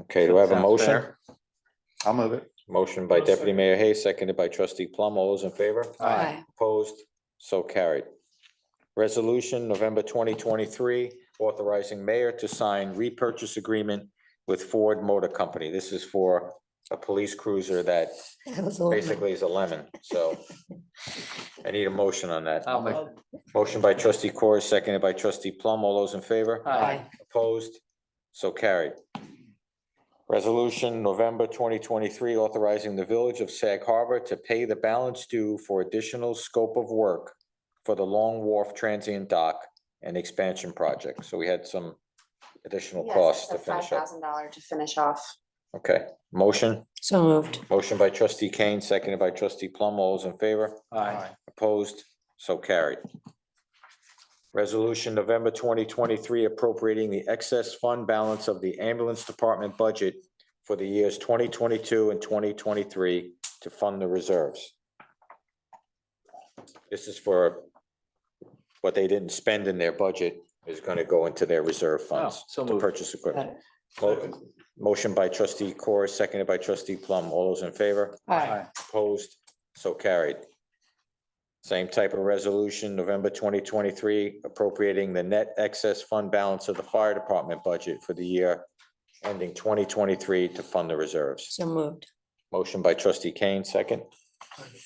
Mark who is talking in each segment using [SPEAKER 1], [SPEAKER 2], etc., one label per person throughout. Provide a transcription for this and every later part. [SPEAKER 1] Okay, do I have a
[SPEAKER 2] Sounds
[SPEAKER 1] motion?
[SPEAKER 2] fair.
[SPEAKER 3] I'll move it.
[SPEAKER 1] Motion by
[SPEAKER 2] I'll
[SPEAKER 1] deputy
[SPEAKER 2] second.
[SPEAKER 1] mayor Hay, seconded by trustee Plum. All those in favor?
[SPEAKER 3] Aye.
[SPEAKER 1] Opposed? So carried. Resolution, November twenty twenty-three, authorizing mayor to sign repurchase agreement with Ford Motor Company. This is for a police cruiser that
[SPEAKER 4] That
[SPEAKER 2] Oh,
[SPEAKER 4] was all.
[SPEAKER 1] basically is a lemon, so I need a motion on that.
[SPEAKER 2] I'll make,
[SPEAKER 1] Motion by trustee Corr, seconded by trustee Plum. All those in favor?
[SPEAKER 2] aye,
[SPEAKER 1] Opposed? So carried. Resolution, November twenty twenty-three, authorizing the Village of Sag Harbor to pay the balance due for additional scope of work for the Long Wharf Transient Dock and Expansion Project. So we had some additional costs to
[SPEAKER 5] Five
[SPEAKER 1] finish up.
[SPEAKER 5] thousand dollar to finish off.
[SPEAKER 1] Okay, motion,
[SPEAKER 4] So moved.
[SPEAKER 1] motion by trustee Kane, seconded by trustee Plum. All those in favor?
[SPEAKER 2] aye,
[SPEAKER 1] Opposed? So carried. Resolution November twenty twenty-three appropriating the excess fund balance of the ambulance department budget for the years twenty twenty-two and twenty twenty-three to fund the reserves. This is for what they didn't spend in their budget is gonna go into their reserve funds
[SPEAKER 2] Oh, so
[SPEAKER 1] to
[SPEAKER 2] moved.
[SPEAKER 1] purchase
[SPEAKER 4] Got
[SPEAKER 1] equipment.
[SPEAKER 4] it.
[SPEAKER 1] Mo- Motion by trustee Corr, seconded by trustee Plum. All those in favor?
[SPEAKER 4] Aye.
[SPEAKER 2] aye,
[SPEAKER 1] Opposed, so carried. Same type of resolution, November twenty twenty-three, appropriating the net excess fund balance of the fire department budget for the year ending twenty twenty-three to fund the reserves.
[SPEAKER 4] So moved.
[SPEAKER 1] Motion by trustee Kane, second.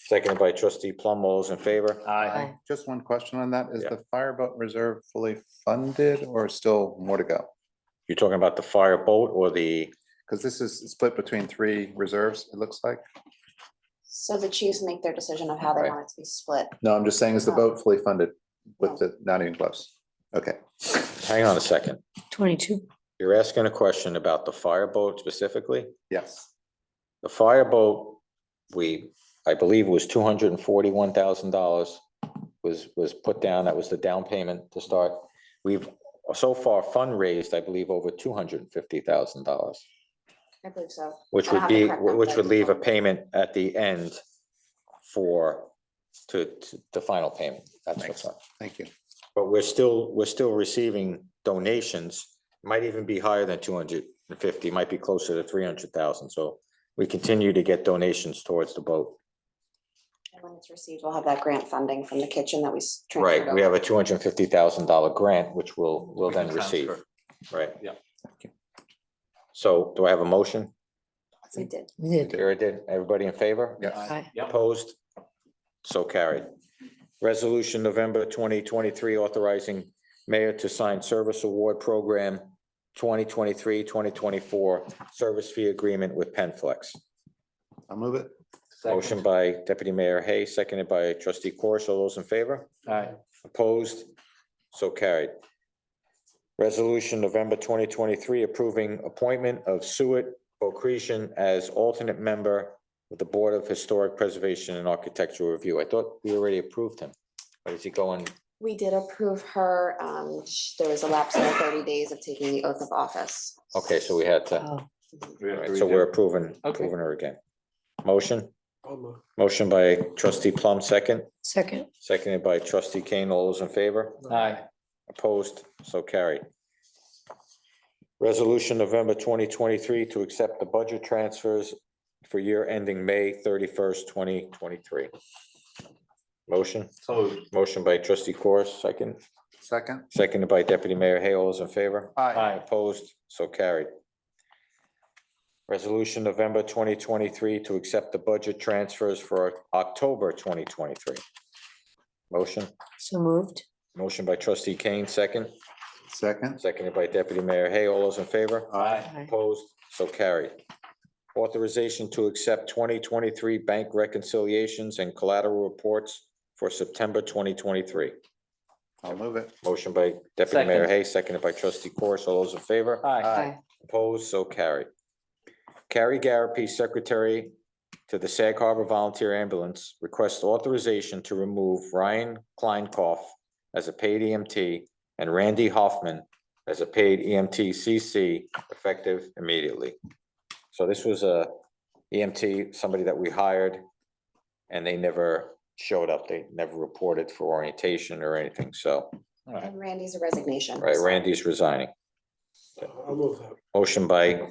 [SPEAKER 1] Seconded by trustee Plum. All those in favor?
[SPEAKER 2] aye.
[SPEAKER 3] Just one question on that. Is
[SPEAKER 1] Yeah.
[SPEAKER 3] the fireboat reserve fully funded or still more to go?
[SPEAKER 1] You're talking about the fire boat or the,
[SPEAKER 3] Because this is split between three reserves, it looks like.
[SPEAKER 5] So the chiefs make their decision of how they
[SPEAKER 1] Right.
[SPEAKER 5] want it to be split.
[SPEAKER 3] No, I'm just saying, is the boat fully funded
[SPEAKER 5] No.
[SPEAKER 3] with the, not even close? Okay,
[SPEAKER 1] hang on a second.
[SPEAKER 4] Twenty-two.
[SPEAKER 1] You're asking a question about the fire boat specifically?
[SPEAKER 3] yes.
[SPEAKER 1] The fireboat, we, I believe was two hundred and forty-one thousand dollars was, was put down. That was the down payment to start. We've so far fundraised, I believe, over two hundred and fifty thousand dollars,
[SPEAKER 5] I believe so.
[SPEAKER 1] which
[SPEAKER 5] I
[SPEAKER 1] would
[SPEAKER 5] don't have the
[SPEAKER 1] be,
[SPEAKER 5] correct
[SPEAKER 1] which would
[SPEAKER 5] numbers.
[SPEAKER 1] leave a payment at the end for, to, to the final payment. That's what's
[SPEAKER 3] Thanks.
[SPEAKER 1] up.
[SPEAKER 3] Thank you.
[SPEAKER 1] But we're still, we're still receiving donations, might even be higher than two hundred and fifty, might be closer to three hundred thousand, so we continue to get donations towards the boat.
[SPEAKER 5] And when it's received, we'll have that grant funding from the kitchen that we. s- transferred
[SPEAKER 1] Right, we have
[SPEAKER 5] over.
[SPEAKER 1] a two hundred and fifty thousand dollar grant, which we'll, we'll
[SPEAKER 2] We can
[SPEAKER 1] then receive,
[SPEAKER 2] transfer.
[SPEAKER 1] right?
[SPEAKER 2] Yeah.
[SPEAKER 1] So do I have a motion?
[SPEAKER 5] We did.
[SPEAKER 4] We did.
[SPEAKER 1] There it did. Everybody in favor?
[SPEAKER 3] Yes.
[SPEAKER 2] Aye.
[SPEAKER 4] Aye.
[SPEAKER 2] Yep,
[SPEAKER 1] Opposed? So carried. Resolution November twenty twenty-three authorizing mayor to sign service award program 2023-2024 service fee agreement with Penflex.
[SPEAKER 3] I'll move it.
[SPEAKER 1] Motion
[SPEAKER 2] second,
[SPEAKER 1] by deputy mayor Hay, seconded by trustee Corish. All those in favor?
[SPEAKER 2] aye,
[SPEAKER 1] Opposed? So carried. Resolution November twenty twenty-three approving appointment of Suet Bocretian as alternate member of the Board of Historic Preservation and Architectural Review. I thought we already approved him. Or is he going?
[SPEAKER 5] We did approve her. Um, sh- there was a lapse of thirty days of taking the oath of office.
[SPEAKER 1] Okay, so we had to,
[SPEAKER 4] Oh,
[SPEAKER 2] We have to
[SPEAKER 1] alright, so
[SPEAKER 2] redo.
[SPEAKER 1] we're approving,
[SPEAKER 2] Okay.
[SPEAKER 1] approving her again. Motion? Motion by trustee Plum, second,
[SPEAKER 4] second.
[SPEAKER 1] seconded by trustee Kane. All those in favor?
[SPEAKER 2] aye,
[SPEAKER 1] Opposed, so carried. Resolution November twenty twenty-three to accept the budget transfers for year ending May thirty-first, twenty twenty-three. Motion,
[SPEAKER 2] so moved,
[SPEAKER 1] motion by trustee Corus, second,
[SPEAKER 3] Second?
[SPEAKER 1] seconded by deputy mayor Hay. All those in favor?
[SPEAKER 2] aye,
[SPEAKER 1] Opposed, so carried. Resolution November twenty twenty-three to accept the budget transfers for October twenty twenty-three. Motion,
[SPEAKER 4] So moved.
[SPEAKER 1] motion by trustee Kane, second.
[SPEAKER 3] Second?
[SPEAKER 1] Seconded by Deputy Mayor Hay. All those in favor?
[SPEAKER 2] aye,
[SPEAKER 4] Aye.
[SPEAKER 1] Opposed? So carried. Authorization to accept twenty twenty-three bank reconciliations and collateral reports for September twenty twenty-three.
[SPEAKER 3] I'll move it.
[SPEAKER 1] Motion by Deputy Mayor
[SPEAKER 2] Second.
[SPEAKER 1] Hay, seconded by trustee Corus. All those in favor?
[SPEAKER 2] aye,
[SPEAKER 4] Aye.
[SPEAKER 1] Opposed? So carried. Carrie Garapi, Secretary to the Sag Harbor Volunteer Ambulance, requests authorization to remove Ryan Kleinkoff as a paid EMT and Randy Hoffman as a paid E EMT CC effective immediately. So this was a EMT, somebody that we hired, and they never showed up. They never reported for orientation or anything, so,
[SPEAKER 2] alright.
[SPEAKER 5] And Randy's a resignation.
[SPEAKER 1] right,
[SPEAKER 5] so-
[SPEAKER 1] Randy's resigning.
[SPEAKER 6] I'll move that.
[SPEAKER 1] Motion by